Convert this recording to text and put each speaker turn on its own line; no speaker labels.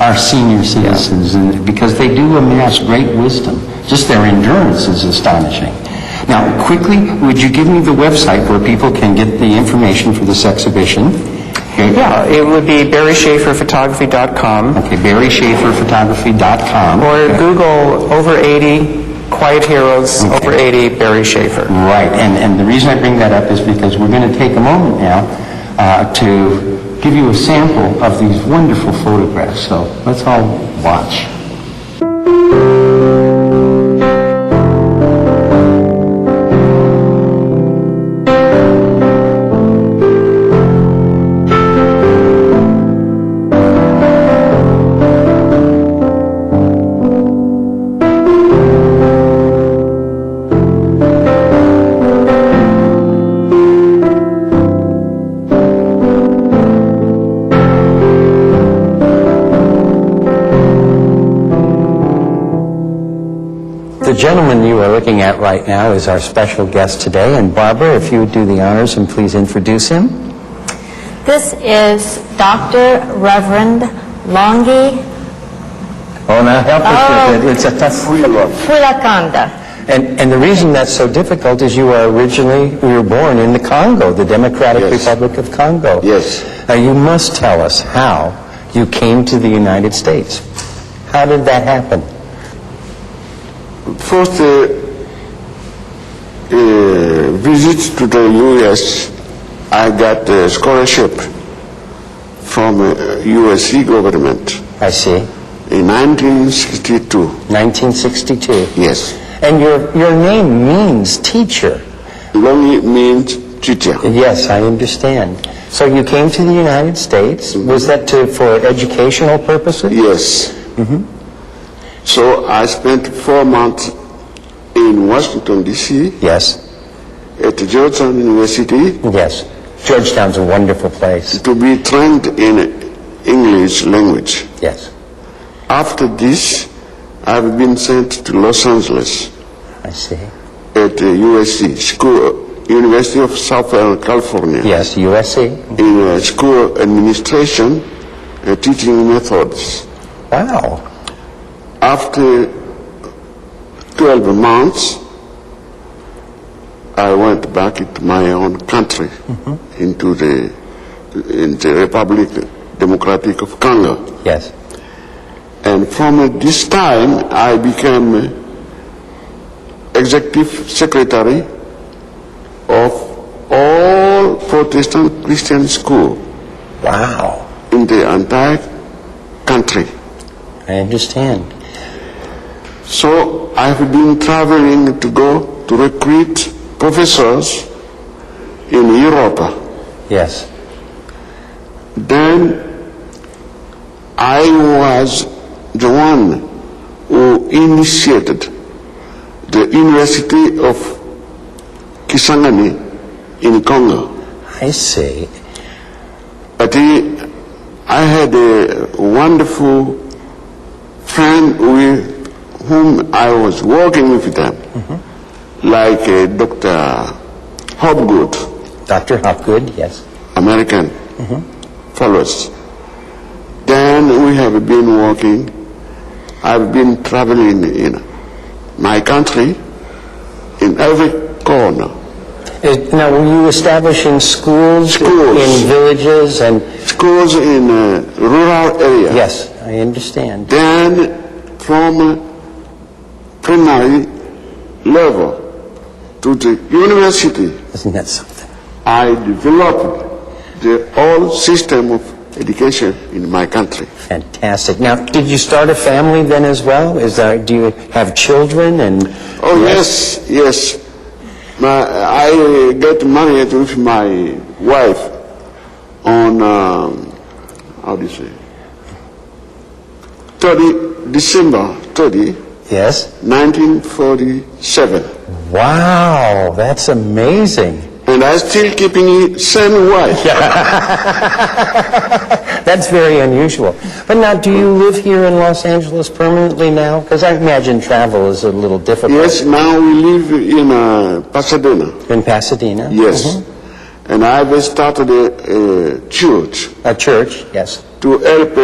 our senior citizens, and because they do amass great wisdom. Just their endurance is astonishing. Now, quickly, would you give me the website where people can get the information for this exhibition? Okay.
Yeah, it would be barryschaferphotography.com
Okay, barryschaferphotography.com.
or Google over 80 Quiet Heroes over 80 Barry Schaefer.
Right, and, and the reason I bring that up is because we're going to take a moment now uh, to give you a sample of these wonderful photographs, so let's all watch. The gentleman you are looking at right now is our special guest today, and Barbara, if you would do the honors and please introduce him.
This is Dr. Reverend Longi
Oh, now help us with it, it's a tough...
Fulakanda.
Oh. And, and the reason that's so difficult is you are originally, you were born in the Congo, the Democratic
Yes.
Republic of Congo.
Yes.
Now, you must tell us how you came to the United States. How did that happen?
First uh, uh, visit to the U.S., I got a scholarship from uh, USC government
I see.
in 1962.
1962.
Yes.
And your, your name means teacher.
Longi means teacher.
Yes, I understand. So you came to the United States. Was that to, for educational purposes?
Yes. So I spent four months in Washington, D.C.
Yes.
at Georgetown University
Yes. Georgetown's a wonderful place.
to be trained in English language.
Yes.
After this, I've been sent to Los Angeles
I see.
at uh, USC, School, University of Southern California,
Yes, USC.
in uh, school administration uh, teaching methods.
Wow.
After 12 months, I went back into my own country,
Mm-hmm.
into the, in the Republic Democratic of Congo.
Yes.
And from this time, I became executive secretary of all Protestant Christian school
Wow.
in the entire country.
I understand.
So I've been traveling to go to recruit professors in Europe.
Yes.
Then I was the one who initiated the University of Kisangani in Congo.
I see.
But he, I had a wonderful friend with whom I was working with them, like uh, Dr. Hobgood.
Dr. Hopgood, yes.
American followers. Then we have been working. I've been traveling in my country, in every corner.
Uh, Now, were you establishing schools,
Schools.
in villages and
Schools in uh, rural area.
yes, I understand.
Then from primary level to the university,
Isn't that something?
I developed the whole system of education in my country.
Fantastic. Now, did you start a family then as well? Is there, do you have children and
Oh yes, yes. My, I get married with my wife on um, how do you say? Thirty December 30,
yes?
1947,
Wow, that's amazing.
and I still keeping it same wife.
That's very unusual. But now, do you live here in Los Angeles permanently now? Because I imagine travel is a little difficult.
Yes, now we live in uh, Pasadena.
In Pasadena?
Yes,
Mhm.
and I've started a, a church
A church, yes.
to help